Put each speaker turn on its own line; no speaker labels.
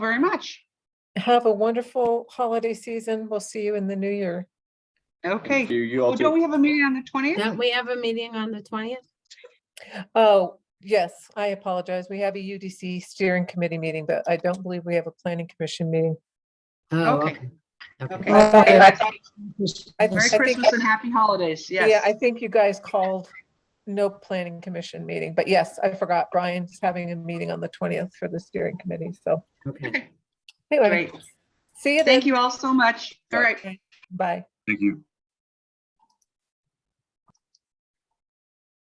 very much.
Have a wonderful holiday season. We'll see you in the new year.
Okay.
You, you
Well,
all
Don't
too.
we have a meeting on the twentieth?
Don't we have a meeting on the twentieth?
Oh, yes, I apologize. We have a UDC steering committee meeting, but I don't believe we have a planning commission meeting.
Oh,
Okay. Okay.
Okay.
I- I
Merry
think-
Christmas and happy holidays.
Yeah,
Yes.
I think you guys called no planning commission meeting, but yes, I forgot Brian's having a meeting on the 20th for the steering committee, so.
Okay.
Okay,
anyway,
Great.
See you then.
Thank you all so much. All right.
Bye.
Thank you.